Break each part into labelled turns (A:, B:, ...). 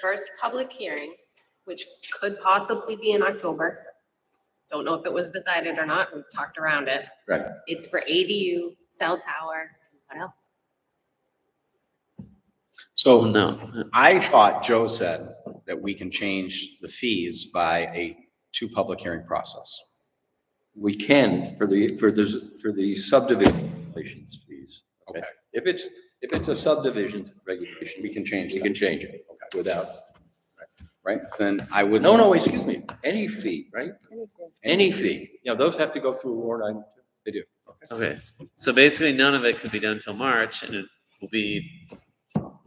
A: first public hearing, which could possibly be in October. Don't know if it was decided or not, we've talked around it.
B: Right.
A: It's for ADU, cell tower, what else?
C: Oh,
B: So
C: no.
B: I thought Joe said that we can change the fees by a two public hearing process.
C: We can for the, for the, for the subdivision regulations fees.
B: Okay.
C: If it's, if it's a subdivision regulation,
B: We can change
C: we
B: that,
C: can change it
B: Okay.
C: without.
B: right? Then I would.
C: No, no, excuse me, any fee, right?
D: Anything.
C: Any fee. You know, those have to go through a warrant item. They do.
E: Okay, so basically none of it could be done till March and it will be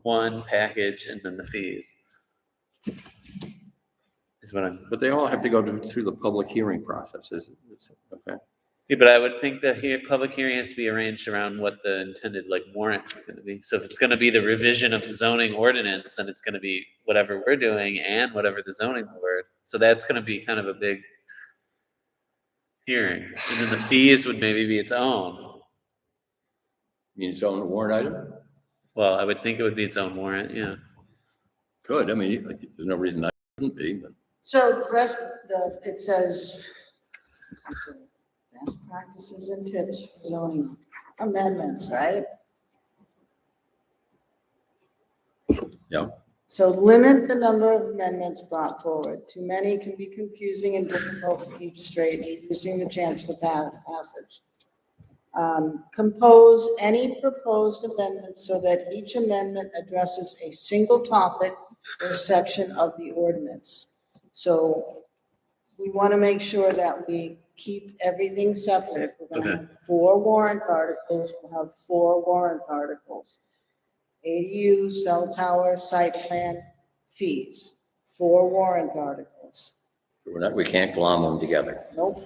E: one package and then the fees. Is what I'm,
C: But they all have to go to- through the public hearing processes. Okay.
E: Yeah, but I would think that here, public hearing has to be arranged around what the intended like warrant is gonna be. So if it's gonna be the revision of the zoning ordinance, then it's gonna be whatever we're doing and whatever the zoning board. So that's gonna be kind of a big hearing. And then the fees would maybe be its own.
C: You mean it's on a warrant item?
E: Well, I would think it would be its own warrant, yeah.
C: Good. I mean, like, there's no reason I wouldn't be, but.
D: So the rest, the, it says, best practices and tips for zoning amendments, right?
C: Yeah.
D: So limit the number of amendments brought forward. Too many can be confusing and difficult to keep straight, reducing the chance for pa- passage. Um, Compose any proposed amendments so that each amendment addresses a single topic or section of the ordinance. So we want to make sure that we keep everything separate. If We're going to
E: Okay.
D: have four warrant articles, we'll have four warrant articles. ADU, cell tower, site plan, fees, four warrant articles.
C: So we're not, we can't glom them together.
D: Nope.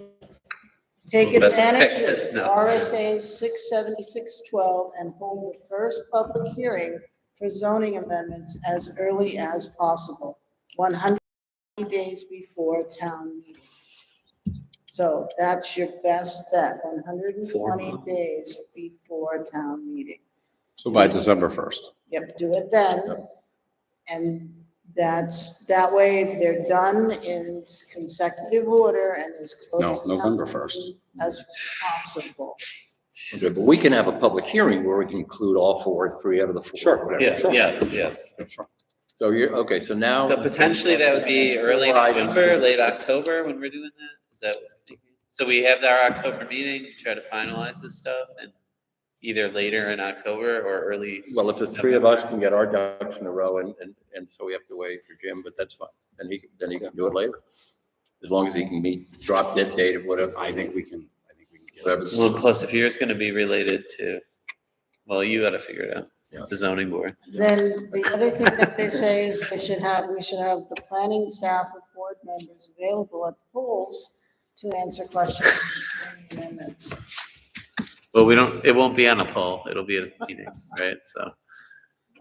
D: Take
E: Well, best
D: advantage
E: practice,
D: of
E: no.
D: RSA six seventy-six twelve and hold the first public hearing for zoning amendments as early as possible, one hundred days before town meeting. So that's your best bet, one hundred and
E: Four
D: twenty
E: months.
D: days before town meeting.
B: So by December first.
D: Yep, do it then. And that's, that way they're done in consecutive order and as close.
B: No,
D: to
B: November
D: happening
B: 1st.
D: As possible.
C: Okay, but we can have a public hearing where we can include all four, three out of the four.
B: Sure,
C: whatever.
E: Yeah, yes, yes.
C: So you're, okay, so now.
E: So potentially that would be early
C: Four items.
E: November, late October when we're doing that? Is that what we're thinking? So we have our October meeting, try to finalize this stuff and either later in October or early.
C: Well, if the three of us can get our ducks in a row and, and, and so we have to wait for Jim, but that's fine. Then he, then he can do it later. As long as he can meet, drop dead date of whatever,
B: I think we can, I think we can get it.
C: whatever.
E: Well, plus if yours gonna be related to, well, you gotta figure it
C: Yeah.
E: out, the zoning board.
D: Then the other thing that they say is they should have, we should have the planning staff or board members available at polls to answer questions and amendments.
E: Well, we don't, it won't be on a poll, it'll be at a meeting, right? So,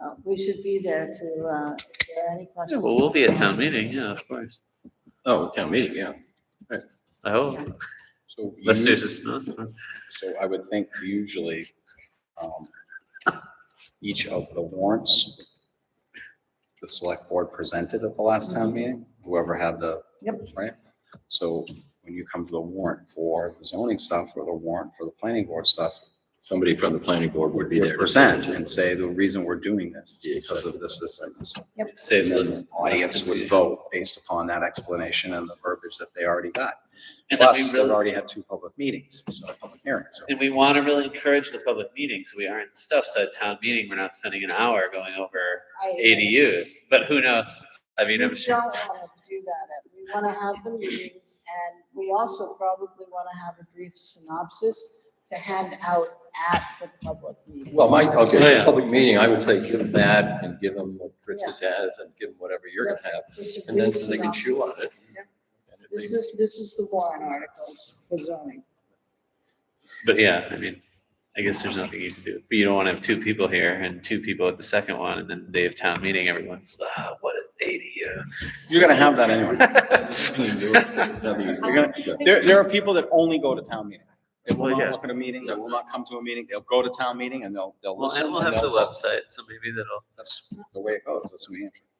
D: Uh, We should be there to, uh, if there are any
E: yeah,
D: questions.
E: well, we'll be at town meeting, yeah, of course.
C: Oh, town meeting, yeah.
E: I hope,
B: So
E: unless there's
B: you-
E: a snowstorm.
B: So I would think usually, um, each of the warrants, the select board presented at the last
C: Mm-hmm.
B: town meeting, whoever had the.
D: Yep.
B: Right? So when you come to the warrant for the zoning stuff or the warrant for the planning board stuff,
C: Somebody from the planning board would be
B: you
C: there.
B: present and say, the reason we're doing this is because of this, this, and this. And
E: Saves
B: then
E: us.
B: the audience would vote based upon that explanation and the verbiage that they already got.
E: And then we
B: Plus, they've
E: really-
B: already had two public meetings, so public hearings. so-
E: And we want to really encourage the public meeting, so we aren't in stuff, so at town meeting, we're not spending an hour going over
D: I-
E: ADUs, but who knows? I
D: We
E: mean, I'm
D: don't
E: sure,
D: want to do that. Uh, We want to have the meetings and we also probably want to have a brief synopsis to hand out at the public meeting.
C: Well, my,
E: Oh,
C: okay,
E: yeah.
C: public meeting, I would say give them that and give them what Chris has and give them whatever you're gonna have.
D: Just a
C: And then
D: brief
C: they can chew on
D: synopsis.
C: it.
D: Yep.
C: And if they-
D: This is, this is the warrant articles for zoning.
E: but yeah, I mean, I guess there's nothing you can do, but you don't want to have two people here and two people at the second one, and then they have town meeting, everyone's, ah, what an
B: You're gonna have that anyway.
C: You're
A: You're
C: gonna-
B: There, there are people that only go to town meeting. They will
E: Well,
B: not
E: yeah.
B: look at a meeting, they will not come to a meeting, they'll go to uh, town meeting and they'll, they'll
E: Well,
B: listen.
E: and we'll
B: and
E: have the
B: they'll-
E: website, so maybe that'll,
B: That's the way it goes, that's New Hampshire.